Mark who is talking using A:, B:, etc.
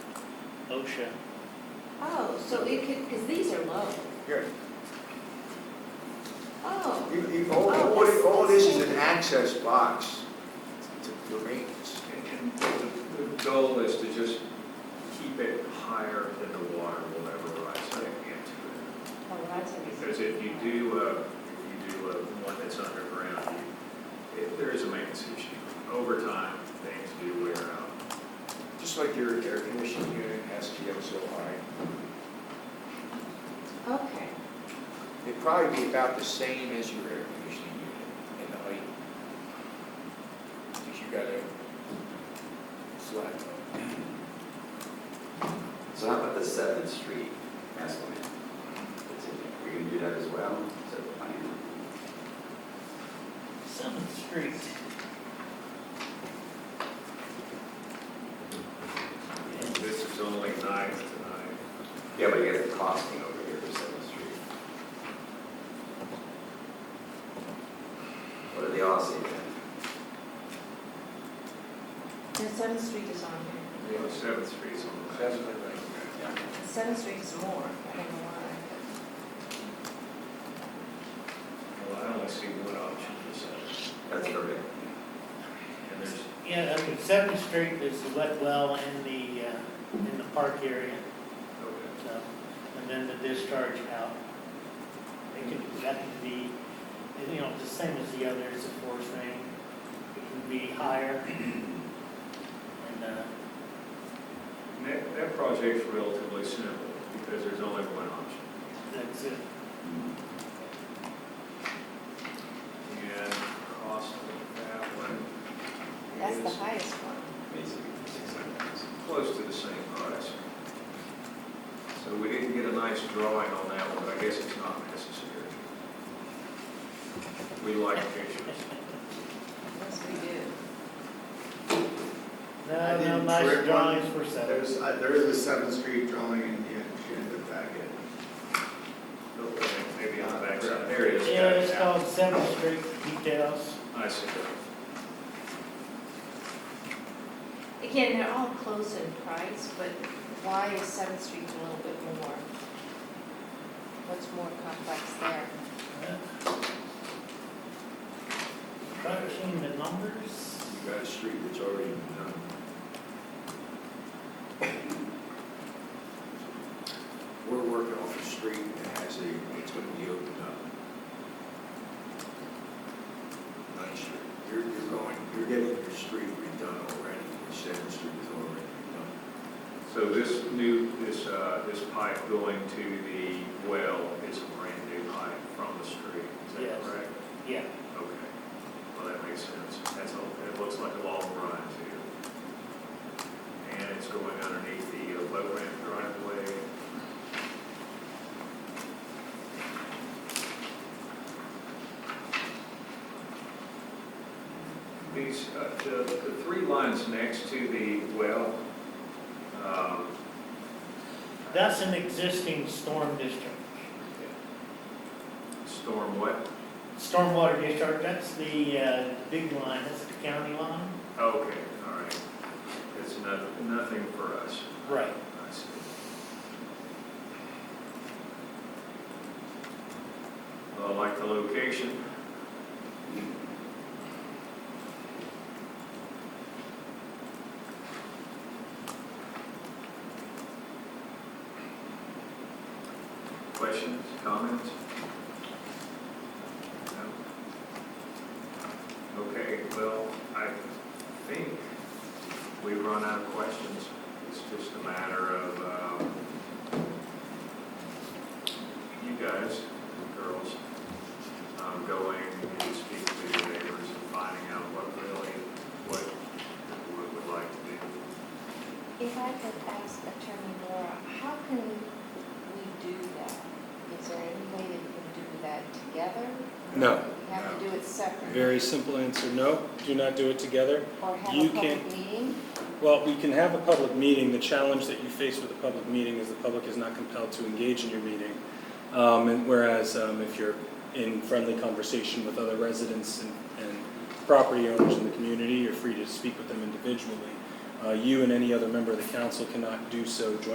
A: OSHA.
B: Oh, so it could, because these are low.
C: Here,
B: Oh,
C: you, you, all,
B: Oh,
C: all,
B: this-
C: all this is
B: this-
C: an access box to, to maintenance.
D: And the the goal is to just keep it higher than the water will ever rise up into
B: oh, that's
D: it.
B: what
D: Because if you do, uh, if you do uh, one that's underground, you- if there is a maintenance issue, over time, things do wear out.
C: Just like your air conditioning unit has to get so high.
B: Okay,
C: It'd probably be about the same as your air conditioning unit in the height. Because you got a flat top.
E: So how about the Seventh Street gas line? That's it. We're gonna do that as well, is that the plan?
A: Seventh Street.
D: This is only uh, nine tonight.
E: Yeah, but you got the costing over here for Seventh Street. What do they all say then?
B: and Seventh Street is on here.
D: Seventh Street's on the
C: That's
D: left.
C: what I
B: Seventh Street is more, I don't know why.
D: Well, I only see one option for Seventh.
E: That's correct.
D: And there's,
A: Yeah, I mean, Seventh Street is the wet well in the, uh, in the park area,
D: okay.
A: so, and then the discharge out. It could, that could be, you know, the same as the others, of course, rain. It can be higher. And, uh,
D: And that, that project's relatively simple because there's only one option.
A: that's it.
D: And cost of that one
B: That's
D: is
B: the highest one.
E: Basically, six hundred thousand.
D: close to the same price. So we didn't get a nice drawing on that one, but I guess it's not necessary. We like pictures.
B: Yes, we do.
F: I
A: No, no,
F: didn't
A: nice
F: correct
A: drawings for seven.
F: There's, uh, there is a Seventh Street drawing in the agenda packet.
D: Okay, Oh, Maybe on the backside, there it is.
A: Yeah, it's called Seventh Street details.
D: I see.
B: Again, they're all close in price, but why is Seventh Street a little bit more? What's more complex there?
A: Crunching the numbers.
C: You got a street that's already done. We're working off a street that has a, it's gonna be opened up. Ninth Street, you're, you're going, you're getting your street redone already, your Seventh Street is already redone.
D: So this new, this, uh, this pipe going to the well is a brand new pipe from the street, is
A: Yes.
D: that correct?
A: Yeah,
D: Okay, well, that makes sense. That's, a- it looks like a long run too. And it's going underneath the uh, low ramp driveway. These, uh, the, the three lines next to the well, um,
A: that's an existing storm discharge.
D: storm what?
A: Stormwater discharge, that's the, uh, big line, that's the county line.
D: Okay, all right. It's nothing, nothing for us.
A: Right.
D: I see. Well, I like the location. Questions, comments? No? Okay, well, I think we've run out of questions. It's just a matter of, um, you guys, girls, um, going and speaking to your neighbors and finding out what really, what, what would like to do.
B: If I could ask Attorney Laura, how can we do that? Is there any way that we can do that together?
G: No.
B: We have to do it separately?
G: Very simple answer, no, do not do it together.
B: Or have a
G: you
B: public
G: can-
B: meeting?
G: Well, we can have a public meeting, the challenge that you face with a public meeting is the public is not compelled to engage in your meeting. Um, and whereas, um, if you're in friendly conversation with other residents and, and property owners in the community, you're free to speak with them individually. Uh, you and any other member of the council cannot do so jointly